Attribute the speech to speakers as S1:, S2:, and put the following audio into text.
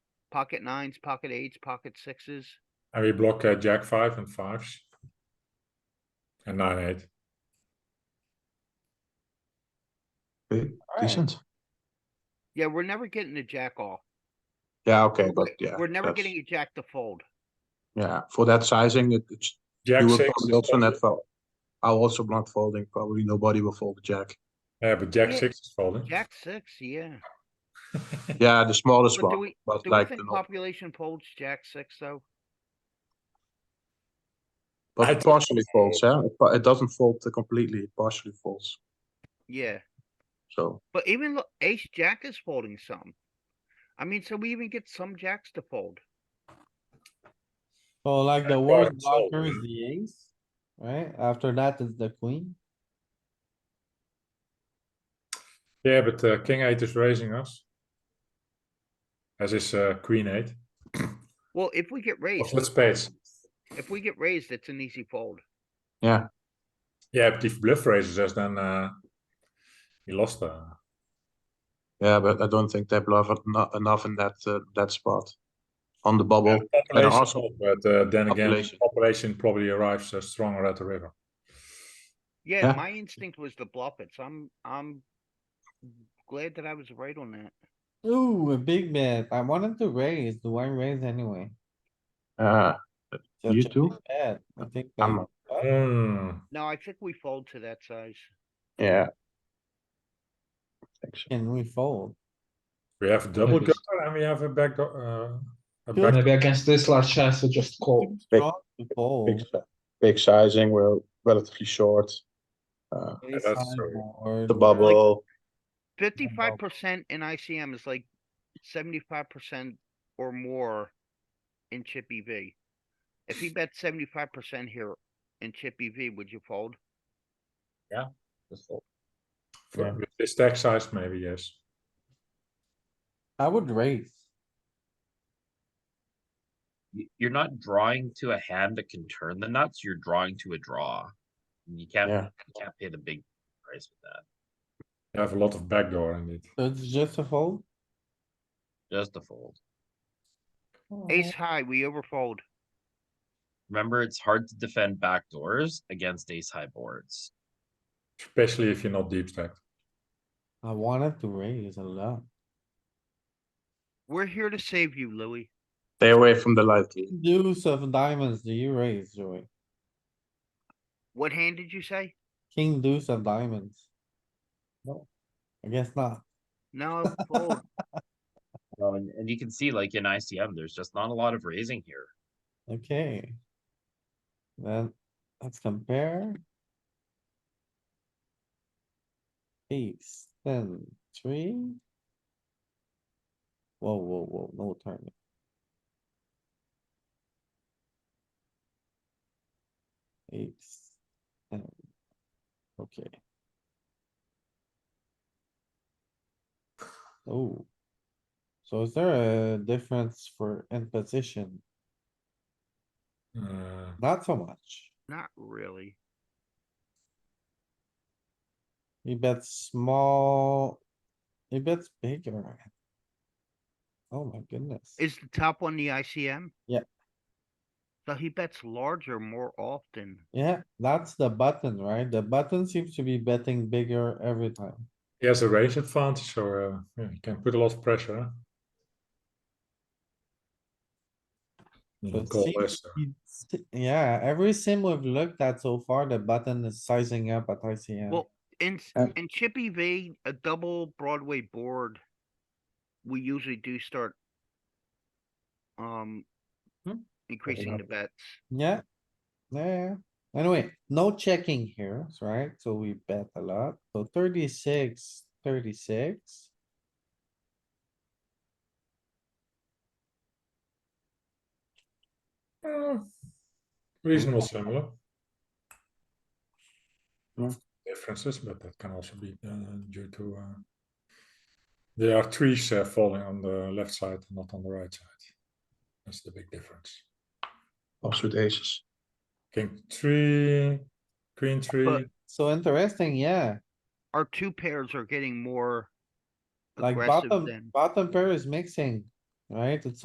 S1: pocket nines, pocket eights, pocket sixes.
S2: And we block uh, jack five and fives. And nine eight.
S3: Okay,
S4: Alright.
S3: decent.
S1: Yeah, we're never getting a jack off.
S3: Yeah, okay, but yeah.
S1: We're never
S3: that's-
S1: getting a jack to fold.
S3: Yeah, for that sizing, it, it's,
S2: Jack
S3: you will
S2: six.
S3: probably
S2: is
S3: also
S2: folded.
S3: not fold. I'll also block folding, probably nobody will fold the jack.
S2: Yeah, but jack
S1: Yeah.
S2: six is folding.
S1: Jack six, yeah.
S3: Yeah, the smallest
S1: But do
S3: one,
S1: we,
S3: but
S1: do we
S3: like, the
S1: think
S3: not-
S1: population folds jack six though?
S3: but
S2: I
S3: it
S2: think-
S3: partially folds, yeah, it pa- it doesn't fold completely, it partially folds,
S1: Yeah,
S3: so.
S1: but even lo- ace jack is folding some. I mean, so we even get some jacks to fold.
S4: So like the
S2: Jack
S4: worst
S2: five is
S4: blocker is
S2: folding.
S4: the ace, right? After that is the queen.
S2: Yeah, but uh, king eight is raising us. As is uh, queen eight.
S1: Well, if we get
S2: Of
S1: raised,
S2: that space.
S1: if we get raised, it's an easy fold.
S2: Yeah, but if bluff raises us, then uh, he lost. Uh,
S3: Yeah, but I don't think they bluff eno- enough in that uh, that spot on the bubble.
S2: population
S3: also-
S2: not, but uh, then again,
S3: Population.
S2: population probably arrives uh, stronger at the river.
S1: Yeah,
S3: Yeah.
S1: my instinct was to bluff it, so I'm, I'm glad that I was right on that.
S4: Ooh, a big bet. I wanted to raise. Do I raise anyway?
S3: Uh,
S4: Such
S3: You
S4: a
S3: too?
S4: big bet. I think.
S3: I'm-
S4: like, what?
S2: Hmm.
S1: No, I think we fold to that size.
S3: yeah. Thanks.
S4: Can we fold?
S2: We have a double
S5: Maybe.
S2: gutter and we have a back. gu- Uh, a
S5: But
S2: back
S5: Maybe against this large size, we just call.
S3: Big-
S4: Strong to
S3: Big,
S4: fold.
S3: si- big sizing, we're relatively short. Uh,
S4: any
S2: that's
S4: side
S2: true.
S4: board.
S3: the bubble,
S1: Fifty-five percent in ICM is like seventy-five percent or more in chip EV. If he bet seventy-five percent here in chip EV, would you fold?
S2: for,
S3: Yeah.
S2: with the stack size, maybe yes.
S4: I would raise.
S6: y- you're not drawing to a hand that can turn the nuts, you're drawing to a draw. And you can't,
S3: Yeah.
S6: you can't pay the big price with that,
S2: We have a lot of backdoor indeed.
S4: So it's just a fold?
S6: just a fold.
S1: Ace high, we overfold.
S6: Remember, it's hard to defend backdoors against ace high boards.
S2: especially if you're not deep stacked.
S4: I wanted to raise a lot.
S1: We're here to save you, Louis.
S3: stay away from the light. please.
S4: Deuce of diamonds, do you raise, Joey?
S1: What hand did you say?
S4: King deuce of diamonds? No, I guess not.
S1: No, fold.
S6: Um, and, and you can see like in ICM, there's just not a lot of raising here.
S4: Okay. Then, let's compare. Ace, ten, three. Whoa, whoa, whoa, no turn. Ace. ten. Okay. Oh. So is there a difference for in position?
S2: Uh,
S4: Not so much.
S1: Not really.
S4: He bets small. He bets bigger. Oh my goodness.
S1: Is the top one the ICM?
S4: Yeah.
S1: So he bets larger more often.
S4: Yeah, that's the button, right? The button seems to be betting bigger every time.
S2: he has a range advantage, so uh, yeah, he can put a lot of pressure. huh?
S4: So
S2: Mm,
S4: it
S2: call
S4: seems
S2: this, uh,
S4: he- Yeah, every sim we've looked at so far, the button is sizing up at ICM.
S1: Well, in, s-
S4: Um,
S1: in Chippy V, a double Broadway board, we usually do start um,
S4: Hmm.
S1: increasing the bets.
S4: Yeah. Yeah. Anyway, no checking here, right? So we bet a lot. So 36, 36.
S2: Reasonable similar.
S3: Yeah.
S2: Differences, but that can also be uh, due to uh, there are trees uh, falling on the left side, not on the right side. That's the big difference.
S3: Offsuit aces.
S2: King tree, queen tree.
S4: So interesting, yeah.
S1: Our two pairs are getting more
S4: Like
S1: aggressive
S4: bottom,
S1: than.
S4: bottom pair is mixing, right? It's